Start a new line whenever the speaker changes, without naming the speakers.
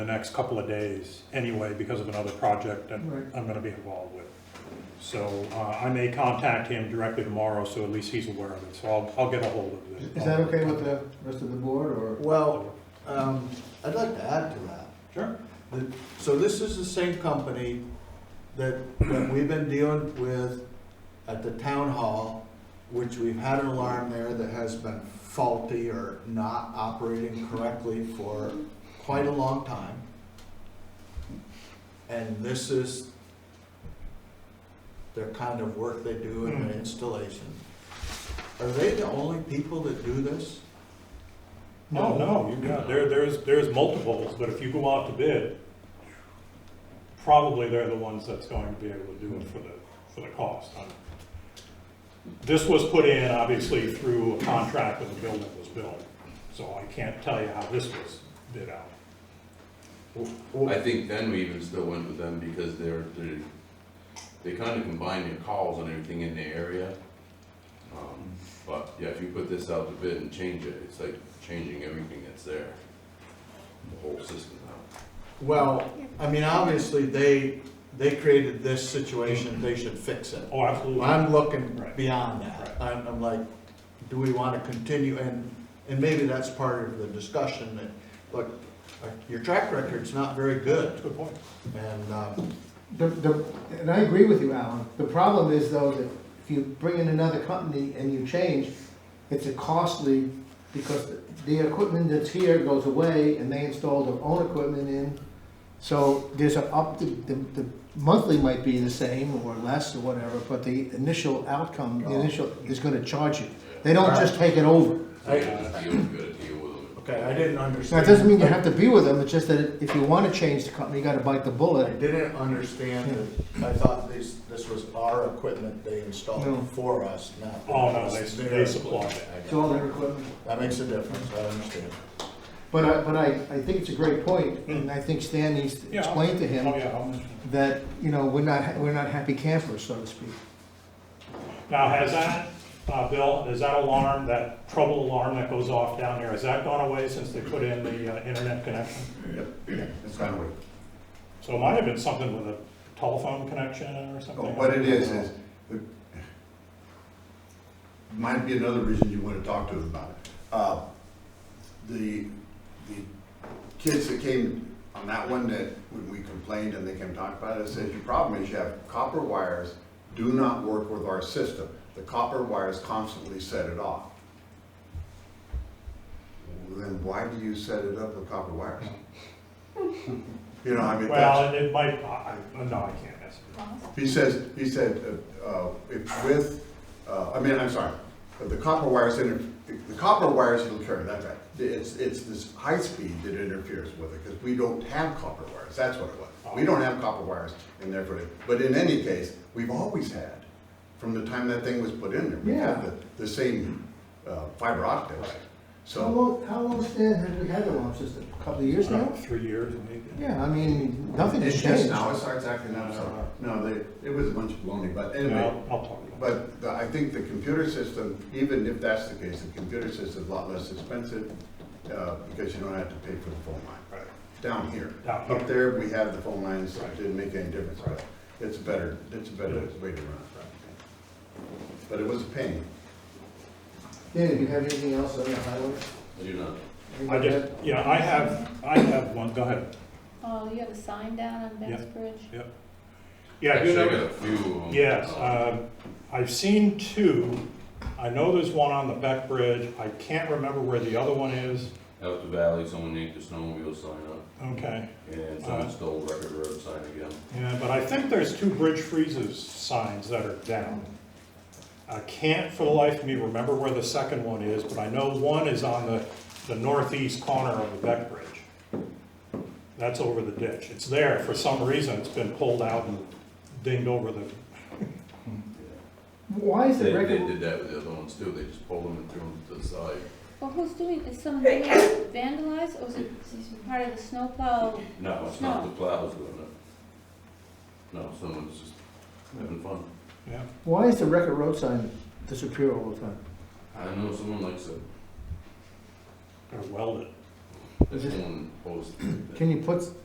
the next couple of days anyway because of another project that
Right.
I'm gonna be involved with. So, uh, I may contact him directly tomorrow, so at least he's aware of it, so I'll, I'll get a hold of this.
Is that okay with the rest of the board, or?
Well, um, I'd like to add to that.
Sure.
The- So this is the same company that, that we've been dealing with at the town hall, which we've had an alarm there that has been faulty or not operating correctly for quite a long time. And this is their kind of work they do in their installation. Are they the only people that do this?
No, no, you got, there, there's, there's multiples, but if you go out to bid, probably they're the ones that's going to be able to do it for the, for the cost. I'm- This was put in, obviously, through a contract when the building was built, so I can't tell you how this was bid out.
I think then we even still went with them because they're, they, they kinda combine your calls and everything in the area. Um, But, yeah, if you put this out to bid and change it, it's like changing everything that's there, the whole system now.
Well, I mean, obviously, they, they created this situation, they should fix it.
Oh, absolutely.
I'm looking
Right.
beyond that. I'm, I'm like, do we want to continue? And, and maybe that's part of the discussion that, look, uh, your track record's not very good.
Good point.
And, um,
The, the, and I agree with you, Alan, the problem is though, that if you bring in another company and you change, it's a costly, because the equipment that's here goes away, and they install their own equipment in, so there's an up, the, the, the monthly might be the same, or less, or whatever, but the initial outcome, the initial, is gonna charge you. They don't just take it over.
So you gotta deal, you gotta deal with them.
okay, I didn't
Now,
understand.
it doesn't mean you have to be with them, it's just that if you wanna change the company, you gotta bite the
I
bullet.
didn't understand that, I thought this, this was our equipment they
No.
installed for us, not.
Oh, no, they- they supplied it.
I
It's
got
all
it.
their equipment.
That makes a difference, I understand.
But I, but I, I think it's a great point, and I think Stan needs to
Yeah.
explain to him
Oh, yeah, I'll mention it.
that, you know, we're not, we're not happy campers, so to speak.
Now, has that, uh, Bill, is that alarm, that trouble alarm that goes off down here, has that gone away since they put in the uh, internet connection?
It's not weak.
So it might have been something with a telephone connection or something.
But Oh, What it is, is, it might be another reason you want to talk to us about it. Uh, The, the kids that came on that one that, when we complained and they came talk about it, said, your problem is you have copper wires do not work with our system. The copper wires constantly set it off. Well, Then why do you set it up with copper wires? You know, I mean,
Well,
that's.
it might, I, I- no, I can't answer.
He says, he said, uh, uh, if with, uh, I mean, I'm sorry, but the copper wires, inter- the copper wires interfere, that's right. It's, it's this high speed that interferes with it, because we don't have copper wires, that's what it was. We don't have copper wires in there for it, but in any case, we've always had, from the time that thing was put in there. We have
Yeah.
the, the same uh, fiber optics,
How
so.
long, how long, Stan, have we had the alarm system? A couple of years now?
Three years maybe.
Yeah, I mean, nothing has
It's just
changed.
now, it starts acting up, so, no, they, it was a bunch of baloney, but
Yeah,
anyway.
I'll, I'll talk about it.
But the- I think the computer system, even if that's the case, the computer system's a lot less expensive, uh, because you don't have to pay for the phone line.
Right.
Down here.
Down here.
Up there, we have the phone lines, so it
Right.
didn't make any difference, but
Right.
it's better, it's a better way to run it. But it was a pain.
Dan, do you have anything else on the highway?
I do not.
I just, yeah, I have, I have one, go ahead,
Oh, you have a sign down on Ben's
Yep.
Bridge?
yep. Yeah, I do
Actually, I
know-
got a few of them.
Yes,
Um,
uh, I've seen two, I know there's one on the Beck Bridge, I can't remember where the other one is,
Out the valley, someone named the snowmobile sign up,
okay.
and
Uh.
someone stole Record Road sign again.
Yeah, but I think there's two Bridge Freezes signs that are down. I can't for the life of me remember where the second one is, but I know one is on the, the northeast corner of the Beck Bridge. That's over the ditch. It's there. For some reason, it's been pulled out and dinged over the,
Why is
They,
it
they
record?
did that with the other ones too, they just pulled them and threw them to the side.
Well, who's doing, is someone doing it vandalized, or is it is it part of the snowplow?
No, it's not
No.
the plows doing it. No, someone's just having fun.
yeah.
Why is the record road sign
Uh-huh.
disappear all the time?
I know someone likes it.
They're welded.
Is it-
own post.
Can you put